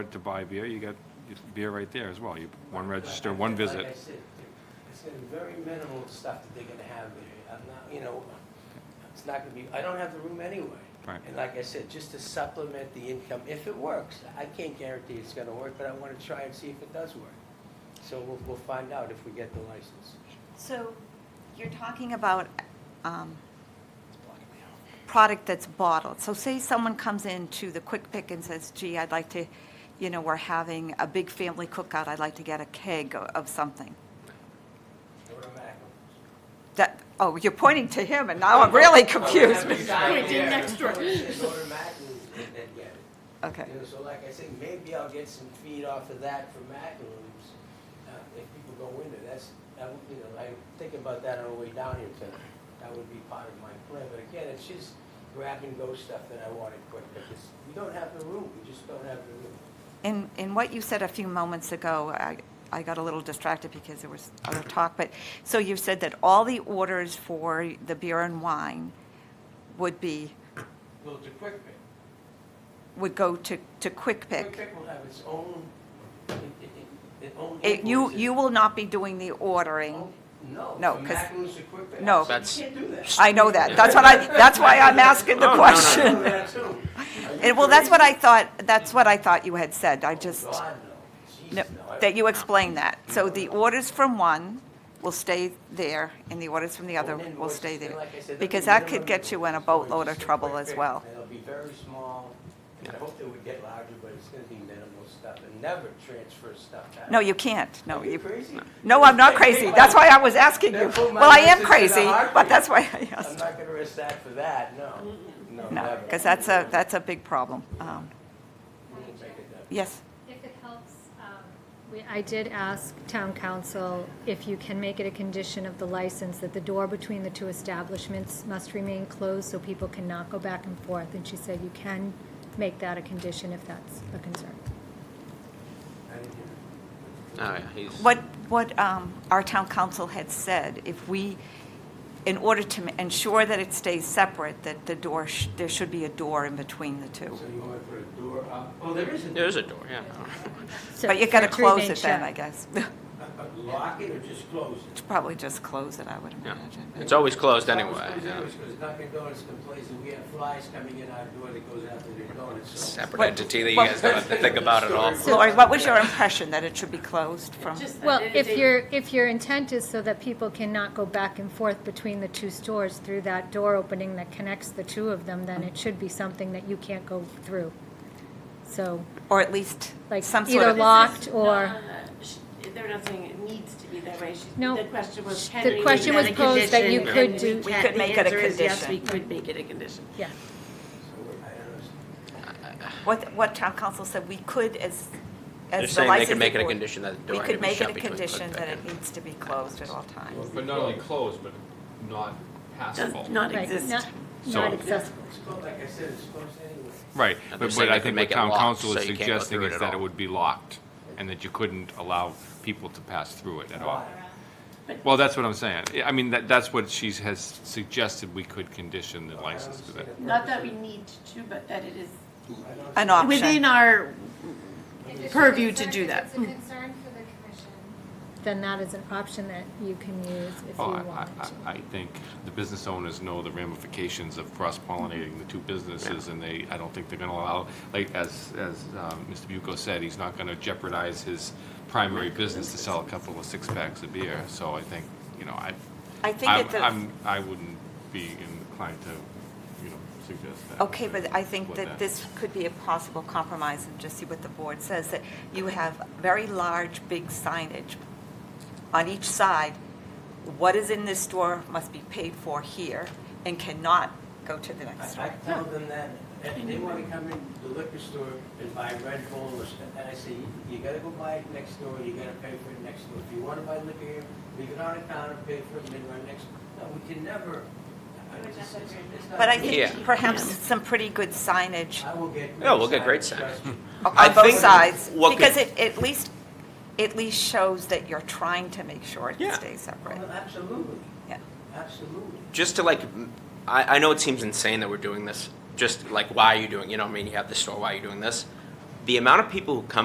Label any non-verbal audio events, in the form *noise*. to buy beer, you got beer right there as well. You, one register, one Like I visit. said, it's gonna be very minimal stuff that they're gonna have there. I'm not, you know, it's not gonna be, I don't have the room anyway. Right. And like I said, just to supplement the income, if it works, I can't guarantee it's gonna work, but I wanna try and see if it does work. So we'll, we'll find out if we get the license. So you're talking about um, product that's bottled. So say someone comes into the Quick Pick and says, gee, I'd like to, you know, we're having a big family cookout, I'd like to get a keg o- of something. That, oh, you're pointing to him, and now I'm really *laughs* confused. Pointing next door. and get it. Okay, You know, so like I said, maybe I'll get some feed off of that from Macaroons, uh, if people go in there, that's, that would, you know, I'm thinking about that on the way down here tonight. That would be part of my plan, but again, it's just grab and go stuff that I wanted quick, because we don't have the room, we just don't have the room. in, in what you said a few moments ago, I, I got a little distracted because there was other talk, but, so you said that all the orders for the beer and wine would be, Well, the quick pick. would go to, to Quick Quick Pick? pick will have its own, it, it, it, its own. It- You, invoices. you will not be doing the ordering. Oh, No. No, from 'cause- Macaroons to quick pick. no. You That's- can't do that. I know that. That's what I, that's why I'm asking the Oh, no, no, no. I know question. that too. *laughs* Are you And, well, that's crazy? what I thought, that's what I thought you had said. I Oh, just, God, no. no, Jeez, no. I- that you explained that. So the orders from one will stay there, and the orders from the other And will invoices, stay and there. like I said, there'll Because be that minimum could get you in a invoices, always boatload of just a trouble quick as pick, well. and It'll be very small, and I hope they would get larger, but it's gonna be minimal stuff, and never transfer stuff out. No, you can't. No, Are you you, crazy? no, I'm not crazy. That's why I was asking you. Well, I am crazy, but that's why I I'm asked. not gonna risk that for that, no, no, No, never. because that's a, that's a big problem. Um, We won't make it that- Yes, If it helps, um, we- I did ask town council if you can make it a condition of the license that the door between the two establishments must remain closed so people cannot go back and forth. And she said you can make that a condition if that's a concern. I didn't hear it. Oh, yeah, he's. What, what um, our town council had said, if we, in order to ma- ensure that it stays separate, that the door, sh- there should be a door in between the two. So you wanna put a door up, well, there is a There's a door, yeah. *laughs* So But you gotta for it remain close it then, shut. I guess. *laughs* a- a lock it or just close it? Probably just close it, I would Yeah. imagine. It's always closed It's anyway. always closed yeah. anyways, 'cause Dunkin' Donuts complains that we have flies coming in our door that goes after their donuts, so. Separate What- entity that you what- guys don't have to think *laughs* about at all. Lori, what was your impression, that it should be closed from? Well, if your, if your intent is so that people cannot go back and forth between the two stores through that door opening that connects the two of them, then it should be something that you can't go through. So, Or at least like, some sort either of, locked No, or. no, no. Sh- They're not saying it needs to be that way. She- No. The question was, can The we question make was a posed that you condition? could And do- we We can- could the make it a answer is Yes, we condition. could make it a condition. Yeah, what, what town council said, we could as, They're as the saying they licensing could make it a board- condition that the We door had to could be make it shut a between Quick condition that Pick it and. needs to be closed at all times. But not only closed, but not Does passable. not right, exist. not, So- not accessible. It's closed, like I said, it's closed anyway. Right, And they're but saying but I they could think make what it town locked, council so is you can't go suggesting through it is at that it all. would be locked and that you couldn't allow people to pass through it at all. But- Well, that's what I'm saying. Yeah, I mean, that, that's what she has suggested we could condition the license to that. Not that we need to, but that it is An option. within our, If it's a purview to concern- do that. If it's a concern for the commission, Then that is an option that you can use if you Oh, I, want to. I, I think the business owners know the ramifications of cross-pollinating the two businesses, and they, I don't think they're gonna allow, like, as, as, um, Mr. Bucco said, he's not gonna jeopardize his primary business to sell a couple of six-packs of beer, so I think, you know, I, I think I'm, at the- I'm, I wouldn't be inclined to, you know, suggest that. Okay, but I think What that this could be a possible compromise and just see what the board says, that you have very large, big signage on each side. What is in this store must be paid for here and cannot go to the next I, store. I tell them that, if they wanna come in the liquor store and buy Red Bull or stuff, and I say, you gotta go buy it next door, you gotta pay for it next door. If you wanna buy liquor here, leave it on the counter, pay for it, and then run next, no, we can never. I would just- it's- it's not- But I Yeah. think perhaps some pretty good signage I will get. No, we'll get great trust me. I on both think sides, what could- because it at least, at least shows that you're trying to make sure it Yeah. stays separate. Well, Oh, Absolutely, Yeah. absolutely. Just to like, m- I, I know it seems insane that we're doing this. Just like, why are you doing? You know, what I mean, you have the store. Why are you doing this? the amount of people who come